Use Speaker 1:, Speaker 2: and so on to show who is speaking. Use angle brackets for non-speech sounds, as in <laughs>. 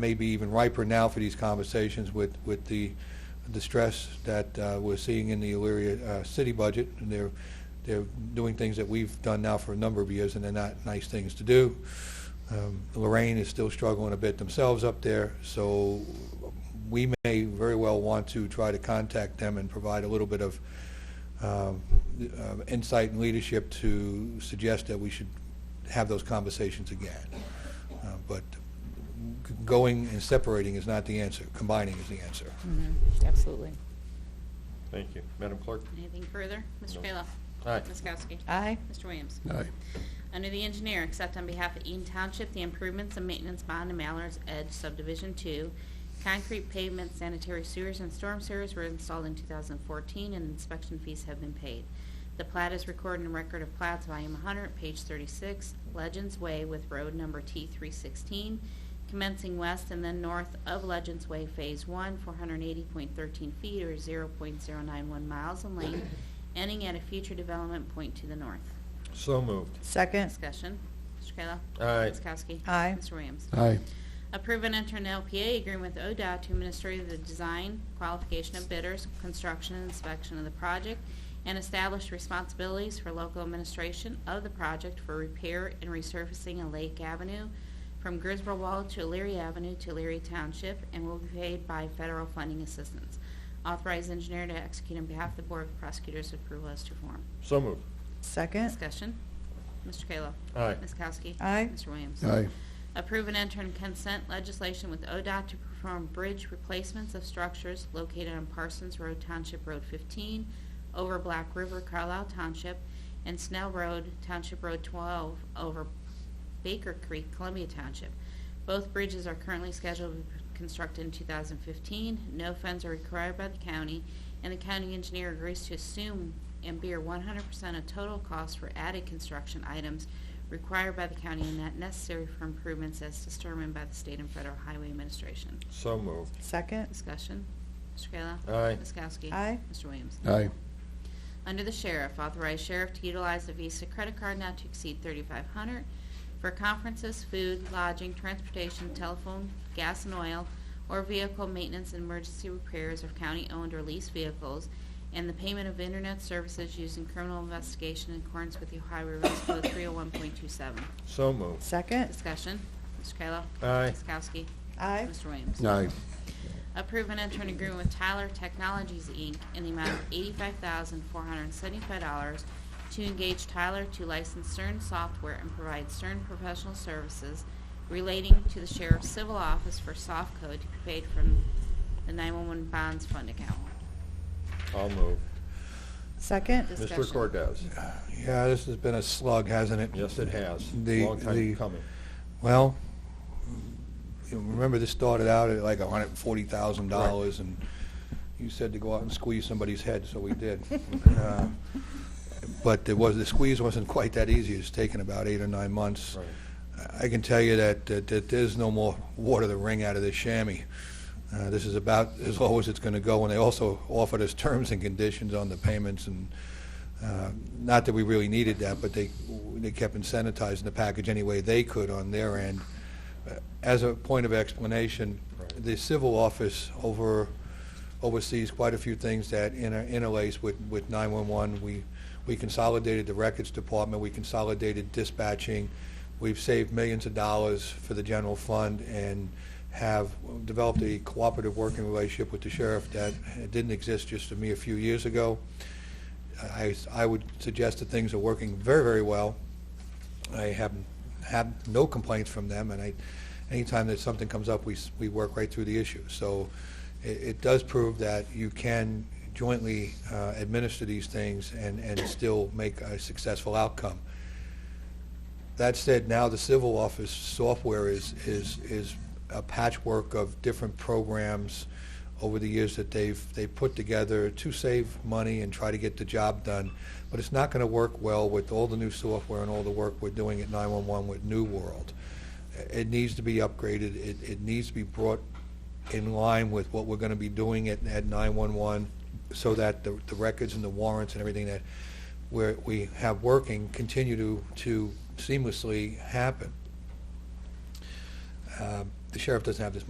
Speaker 1: maybe even riper now for these conversations with, with the, the stress that uh, we're seeing in the Elyria uh, city budget. And they're, they're doing things that we've done now for a number of years, and they're not nice things to do. Um, Lorraine is still struggling a bit themselves up there, so we may very well want to try to contact them and provide a little bit of um, uh, insight and leadership to suggest that we should have those conversations again. Uh, But g- going and separating is not the answer, combining is the answer.
Speaker 2: Hmm.
Speaker 3: Mhm, Absolutely.
Speaker 4: Thank you. Madam Clerk?
Speaker 2: Anything further? Mr.
Speaker 4: No.
Speaker 2: Kayla?
Speaker 4: Aye.
Speaker 2: Ms. Kowski?
Speaker 3: Aye.
Speaker 2: Mr. Williams?
Speaker 5: Aye.
Speaker 2: Under the engineer, accept on behalf of Eaton Township the improvements and maintenance bond in Mallard's Edge Subdivision 2. Concrete pavement, sanitary sewers, and storm sewers were installed in 2014, and inspection fees have been paid. The plat is recorded in Record of Plats, Volume 100, page 36, Legends Way with road number T316, commencing west and then north of Legends Way Phase 1, 480.13 feet or 0.091 miles in length, ending at a future development point to the north.
Speaker 4: So moved.
Speaker 3: Second.
Speaker 2: Discussion. Mr. Kayla?
Speaker 4: Aye.
Speaker 2: Ms. Kowski?
Speaker 3: Aye.
Speaker 2: Mr. Williams?
Speaker 5: Aye.
Speaker 2: Approve and enter an LPA agreement with ODOT to administer the design, qualification of bidders, construction and inspection of the project, and establish responsibilities for local administration of the project for repair and resurfacing of Lake Avenue from Griswold Wall to Leary Avenue to Leary Township, and will be paid by federal funding assistance. Authorize engineer to execute on behalf of the Board of Prosecutors' approval as to form.
Speaker 4: So moved.
Speaker 3: Second.
Speaker 2: Discussion. Mr. Kayla?
Speaker 4: Aye.
Speaker 2: Ms. Kowski?
Speaker 3: Aye.
Speaker 2: Mr. Williams?
Speaker 5: Aye.
Speaker 2: Approve and enter in consent legislation with ODOT to perform bridge replacements of structures located on Parsons Road Township Road 15, over Black River Carlisle Township, and Snell Road Township Road 12, over Baker Creek Columbia Township. Both bridges are currently scheduled to be constructed in 2015. No funds are required by the county, and the county engineer agrees to assume and bear 100% of total cost for added construction items required by the county and not necessary for improvements as determined by the state and federal highway administration.
Speaker 4: So moved.
Speaker 3: Second.
Speaker 2: Discussion. Mr. Kayla?
Speaker 4: Aye.
Speaker 2: Ms. Kowski?
Speaker 3: Aye.
Speaker 2: Mr. Williams?
Speaker 5: Aye.
Speaker 2: Under the Sheriff, authorize Sheriff to utilize the Visa credit card not to exceed 3,500 for conferences, food, lodging, transportation, telephone, gas and oil, or vehicle maintenance and emergency repairs of county-owned or leased vehicles, and the payment of internet services used in criminal investigation in accordance with the Ohio Revised Code 301.27.
Speaker 4: So moved.
Speaker 3: Second.
Speaker 2: Discussion. Mr. Kayla?
Speaker 4: Aye.
Speaker 2: Ms. Kowski?
Speaker 3: Aye.
Speaker 2: Mr. Williams?
Speaker 5: Aye.
Speaker 2: Approve and enter an agreement with Tyler Technologies, Inc. in the amount of $85,475 to engage Tyler to license CERN software and provide CERN professional services relating to the Sheriff's Civil Office for soft code to be paid from the 911 Bonds Fund account.
Speaker 4: I'll move.
Speaker 3: Second.
Speaker 4: Mr.
Speaker 2: Discussion.
Speaker 4: Cordez?
Speaker 1: Yeah, this has been a slug, hasn't it?
Speaker 4: Yes, it has.
Speaker 1: The-
Speaker 4: Long
Speaker 1: the-
Speaker 4: time coming.
Speaker 1: Well, you remember this started out at like $140,000, and you said to go out and squeeze somebody's head, so we
Speaker 4: <laughs>
Speaker 1: did. Uh, But it was, the squeeze wasn't quite that easy. It's taken about eight or nine months.
Speaker 4: Right.
Speaker 1: I can tell you that, that, that there's no more water to wring out of this chamois. Uh, this is about as low as it's going to go, and they also offered us terms and conditions on the payments, and uh, not that we really needed that, but they, they kept incentivizing the package any way they could on their end. Uh, As a point of explanation,
Speaker 4: Right.
Speaker 1: the civil office over, oversees quite a few things that inter- interlace with, with 911. We, we consolidated the records department, we consolidated dispatching, we've saved millions of dollars for the general fund, and have developed a cooperative working relationship with the sheriff that didn't exist just a mere few years ago. I, I would suggest that things are working very, very well. I have had no complaints from them, and I, anytime that something comes up, we, s- we work right through the issue. So it, it does prove that you can jointly uh, administer these things and, and still make a successful outcome. That said, now the civil office software is, is, is a patchwork of different programs over the years that they've, they've put together to save money and try to get the job done. But it's not going to work well with all the new software and all the work we're doing at 911 with New World. It needs to be upgraded. It, it needs to be brought in line with what we're going to be doing at, at 911 so that the, the records and the warrants and everything that we're, we have working continue to, to seamlessly happen. Um, Uh, The sheriff doesn't have this